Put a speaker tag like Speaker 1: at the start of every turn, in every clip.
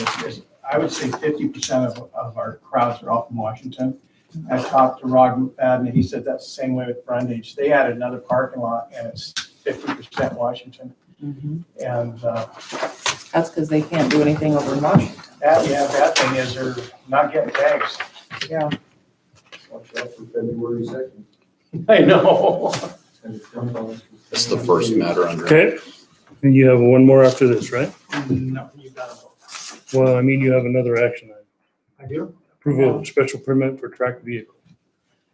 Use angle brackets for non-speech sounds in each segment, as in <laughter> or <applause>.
Speaker 1: is, I would say fifty percent of, of our crowds are all from Washington. I talked to Rod McFadden, and he said that's the same way with Brundage. They added another parking lot and it's fifty percent Washington. And, uh,
Speaker 2: That's because they can't do anything over in Washington.
Speaker 1: that, yeah, that thing is they're not getting tags.
Speaker 2: Yeah.
Speaker 3: Watch out for February second.
Speaker 1: <laughs> I know.
Speaker 4: That's the first matter under.
Speaker 5: Okay, and you have one more after this, right?
Speaker 1: No, you gotta vote.
Speaker 5: Well, I mean, you have another action item,
Speaker 1: I do?
Speaker 5: approval of special permit for tracked vehicle.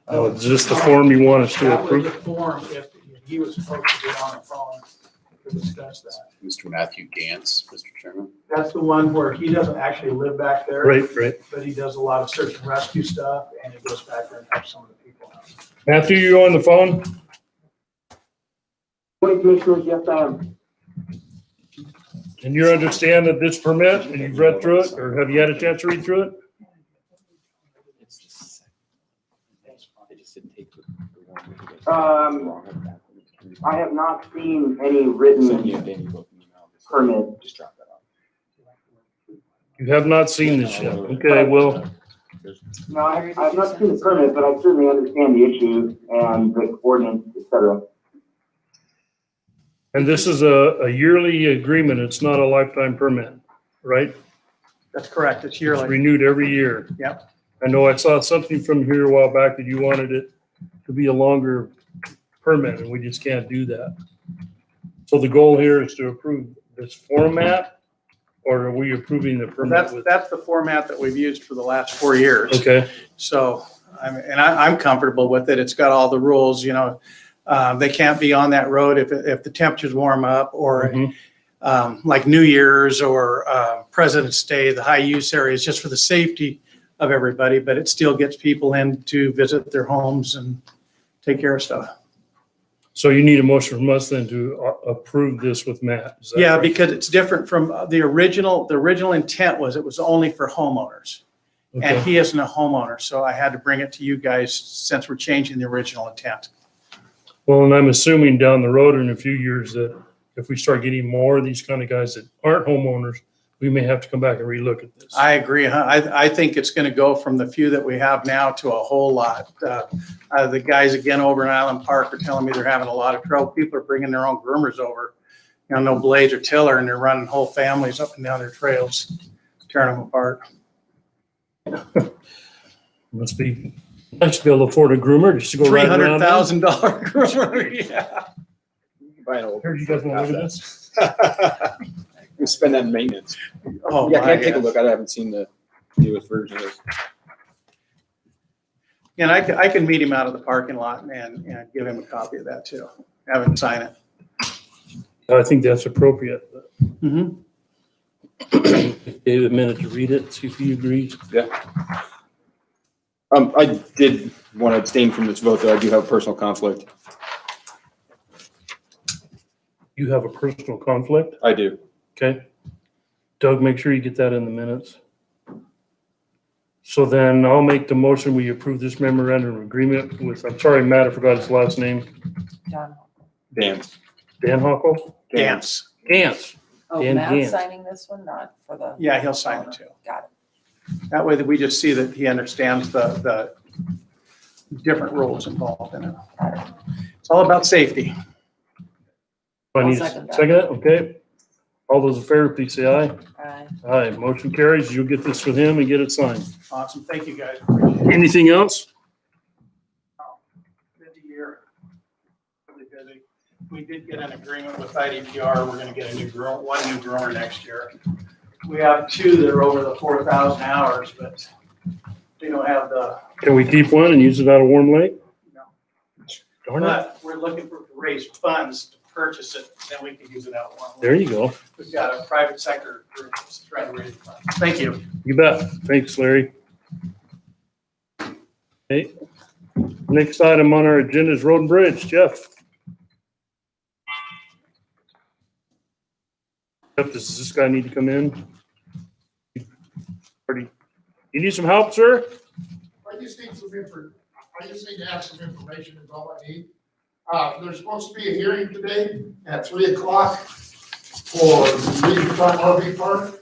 Speaker 5: Oh, is this the form you want us to
Speaker 1: That was a
Speaker 5: approve?
Speaker 1: form if he was supposed to get on the phone to discuss that.
Speaker 4: Mr. Matthew Gantz, Mr. Chairman.
Speaker 1: That's the one where he doesn't actually live back there.
Speaker 5: Right, right.
Speaker 1: But he does a lot of search and rescue stuff and he goes back there and helps some of the people out.
Speaker 5: Matthew, you on the phone?
Speaker 6: Morning, Commissioners. Yes, I am.
Speaker 5: And you understand that this permit, and you've read through it, or have you had a chance to read through it?
Speaker 6: Um, I have not seen any written permit.
Speaker 7: Just drop that off.
Speaker 5: You have not seen this yet. Okay, well,
Speaker 6: No, I- I've not seen the permit, but I certainly understand the issue and the ordinance, et cetera.
Speaker 5: and this is a, a yearly agreement. It's not a lifetime permit, right?
Speaker 1: That's correct. It's
Speaker 5: It's renewed every year.
Speaker 1: Yep.
Speaker 5: I know I saw something from here a while back that you wanted it to be a longer permit, and we just can't do that. So the goal here is to approve this format, or are we approving the permit
Speaker 1: That's,
Speaker 5: with?
Speaker 1: that's the format that we've used for the last four years.
Speaker 5: Okay,
Speaker 1: So, I'm- and I, I'm comfortable with it. It's got all the rules, you know. Uh, They can't be on that road if, if the temperatures warm up or
Speaker 5: mhm,
Speaker 1: um, like New Year's or uh, President's Day, the high use areas, just for the safety of everybody, but it still gets people in to visit their homes and take care of stuff.
Speaker 5: so you need a motion from us then to a- approve this with Matt? is that
Speaker 1: Yeah,
Speaker 5: right?
Speaker 1: because it's different from uh, the original, the original intent was it was only for homeowners. And
Speaker 5: Okay.
Speaker 1: he isn't a homeowner, so I had to bring it to you guys since we're changing the original intent.
Speaker 5: Well, and I'm assuming down the road in a few years that if we start getting more of these kind of guys that aren't homeowners, we may have to come back and relook at this.
Speaker 1: I agree. huh? I, I think it's going to go from the few that we have now to a whole lot. Uh, uh, The guys again over in Island Park are telling me they're having a lot of trouble. People are bringing their own groomers over. You know, no blades or tiller, and they're running whole families up and down their trails, tearing them apart.
Speaker 5: Must be nice to be able to afford a groomer just to go
Speaker 1: Three
Speaker 5: right around.
Speaker 1: hundred thousand dollar <laughs> groomer, yeah.
Speaker 7: You can buy an old.
Speaker 5: Here, you guys want to look at this?
Speaker 7: <laughs> We spend that in maintenance.
Speaker 1: Oh,
Speaker 7: Yeah,
Speaker 1: my
Speaker 7: can I take a
Speaker 1: gosh.
Speaker 7: look? I haven't seen the newest version of this.
Speaker 1: And I can, I can meet him out of the parking lot and, and give him a copy of that too. Have him sign it.
Speaker 5: I think that's appropriate.
Speaker 1: Mhm.
Speaker 5: David, a minute to read it, see if he agrees.
Speaker 7: Um, I did want to abstain from this vote, though. I do have a personal conflict.
Speaker 5: You have a personal conflict,
Speaker 7: I do.
Speaker 5: okay? Doug, make sure you get that in the minutes. So then I'll make the motion, we approve this memorandum of agreement with, I'm sorry, Matt, I forgot his last name,
Speaker 2: Don.
Speaker 7: Dan.
Speaker 5: Dan Hockel?
Speaker 1: Dance.
Speaker 5: Gantz.
Speaker 2: Oh,
Speaker 5: Dan
Speaker 2: Matt's
Speaker 5: Gant.
Speaker 2: signing this one, not for the.
Speaker 1: Yeah, he'll sign it too.
Speaker 2: Got
Speaker 1: That way that we just see that he understands the, the different roles involved in it.
Speaker 2: it, got it.
Speaker 1: It's all about safety.
Speaker 5: Do I need a
Speaker 2: I'll second that.
Speaker 5: second? it? Okay. All those in favor, please say aye.
Speaker 2: Aye.
Speaker 5: Aye, motion carries. You'll get this with him and get it signed.
Speaker 1: Awesome. Thank you, guys.
Speaker 5: Anything else?
Speaker 1: Busy year. Really busy. We did get an agreement with IDPR. We're gonna get a new grower, one new grower next year. We have two that are over the four thousand hours, but they don't have the
Speaker 5: Can we keep one and use it out of Warm Lake?
Speaker 1: No.
Speaker 5: Darn it.
Speaker 1: But we're looking for, to raise funds to purchase it, then we can use it out one.
Speaker 5: There you go.
Speaker 1: We've got a private sector group that's trying to raise funds. Thank you.
Speaker 5: You bet. Thanks, Larry. Okay. Next item on our agenda is road and bridge. Jeff? Jeff, does this guy need to come in? Already- You need some help, sir?
Speaker 8: I just need some info, I just need to have some information is all I need. Uh, there's supposed to be a hearing today at three o'clock for the front RV park.